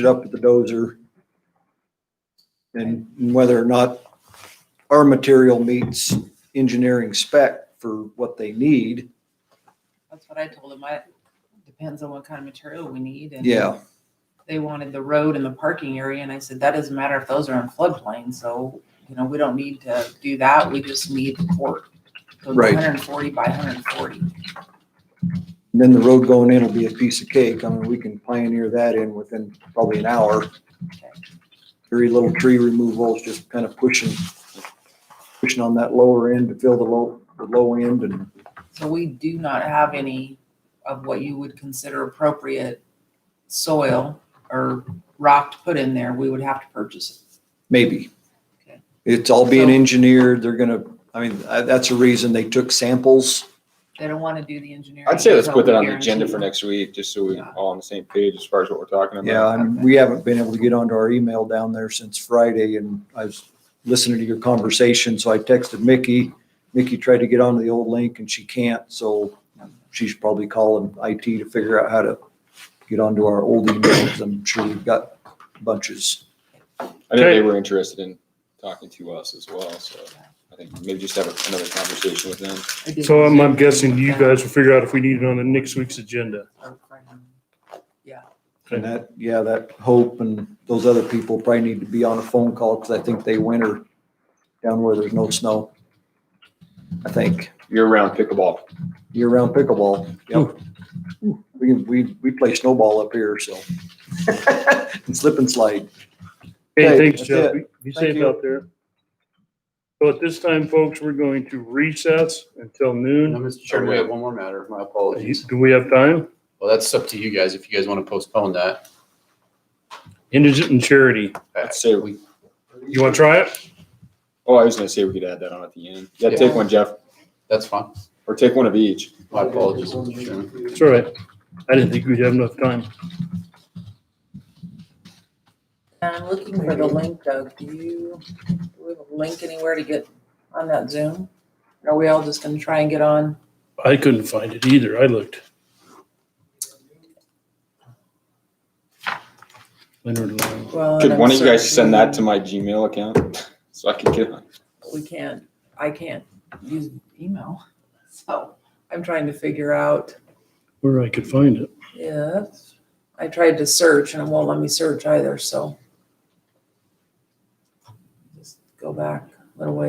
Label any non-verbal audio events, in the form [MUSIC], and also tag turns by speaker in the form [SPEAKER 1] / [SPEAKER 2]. [SPEAKER 1] it up with the dozer. And whether or not our material meets engineering spec for what they need.
[SPEAKER 2] That's what I told them. I, depends on what kind of material we need. and
[SPEAKER 1] Yeah,
[SPEAKER 2] They wanted the road and the parking area, and I said, that doesn't matter if those are in floodplain, so, you know, we don't need to do that. We just need the court. So
[SPEAKER 1] Right.
[SPEAKER 2] Hundred and forty by hundred and forty.
[SPEAKER 1] and then the road going in will be a piece of cake. I mean, we can pioneer that in within probably an hour. Very little tree removals, just kind of pushing, pushing on that lower end to fill the low, the low end and
[SPEAKER 2] So we do not have any of what you would consider appropriate soil or rock to put in there. We would have to purchase it.
[SPEAKER 1] Maybe.
[SPEAKER 2] Okay.
[SPEAKER 1] It's all being
[SPEAKER 2] So-
[SPEAKER 1] engineered. They're gonna, I mean, uh, that's a reason they took samples.
[SPEAKER 2] They don't want to do the engineering.
[SPEAKER 3] I'd say let's put that on the
[SPEAKER 2] Guarantee.
[SPEAKER 3] agenda for next week, just so we're
[SPEAKER 2] Yeah.
[SPEAKER 3] all on the same page as far as what we're talking about.
[SPEAKER 1] Yeah, and
[SPEAKER 2] Okay.
[SPEAKER 1] we haven't been able to get onto our email down there since Friday and I was listening to your conversation, so I texted Mickey. Mickey tried to get onto the old link and she can't, so she's probably calling IT to figure out how to get onto our old emails. I'm sure we've got bunches.
[SPEAKER 3] I know
[SPEAKER 4] Okay.
[SPEAKER 3] they were interested in talking to us as well, so I think maybe just have another conversation with them.
[SPEAKER 2] I did.
[SPEAKER 4] So I'm, I'm guessing you guys will figure out if we need it on the next week's agenda.
[SPEAKER 1] And that, yeah, that Hope and those other people probably need to be on a phone call because I think they winter down where there's no snow. I think
[SPEAKER 3] Year-round pickleball.
[SPEAKER 1] year-round pickleball. Yep. We, we, we play snowball up here, so. [LAUGHS] And slip and slide. Okay,
[SPEAKER 4] Hey, thanks,
[SPEAKER 1] that's
[SPEAKER 4] Jeff. Be
[SPEAKER 1] Thank
[SPEAKER 4] safe
[SPEAKER 1] you.
[SPEAKER 4] out there. So at this time, folks, we're going to recess until
[SPEAKER 5] No,
[SPEAKER 4] noon.
[SPEAKER 5] Mr. Chairman, we have one more matter. My apologies.
[SPEAKER 4] Do we have time?
[SPEAKER 5] Well, that's up to you guys if you guys want to postpone that.
[SPEAKER 4] Indigent and charity.
[SPEAKER 3] Let's say,
[SPEAKER 5] We-
[SPEAKER 4] You want to try it?
[SPEAKER 3] oh, I was gonna say we could add that on at the end. Yeah, take one, Jeff,
[SPEAKER 5] That's fine.
[SPEAKER 3] or take one of each.
[SPEAKER 5] My apologies, Mr. Chairman.
[SPEAKER 4] It's all right. I didn't think we'd have enough time.
[SPEAKER 2] I'm looking for the link, Doug. Do you, do we have a link anywhere to get on that Zoom? Are we all just gonna try and get on?
[SPEAKER 4] I couldn't find it either. I looked. Leonard Lang.
[SPEAKER 2] Oh,
[SPEAKER 3] Could one of you guys send that to my Gmail account? [LAUGHS] So I can get on.
[SPEAKER 2] We can't, I can't use email, [LAUGHS] so I'm trying to figure out
[SPEAKER 4] Where I could find it.
[SPEAKER 2] if, I tried to search and it won't let me search either, so. Just go back a little ways.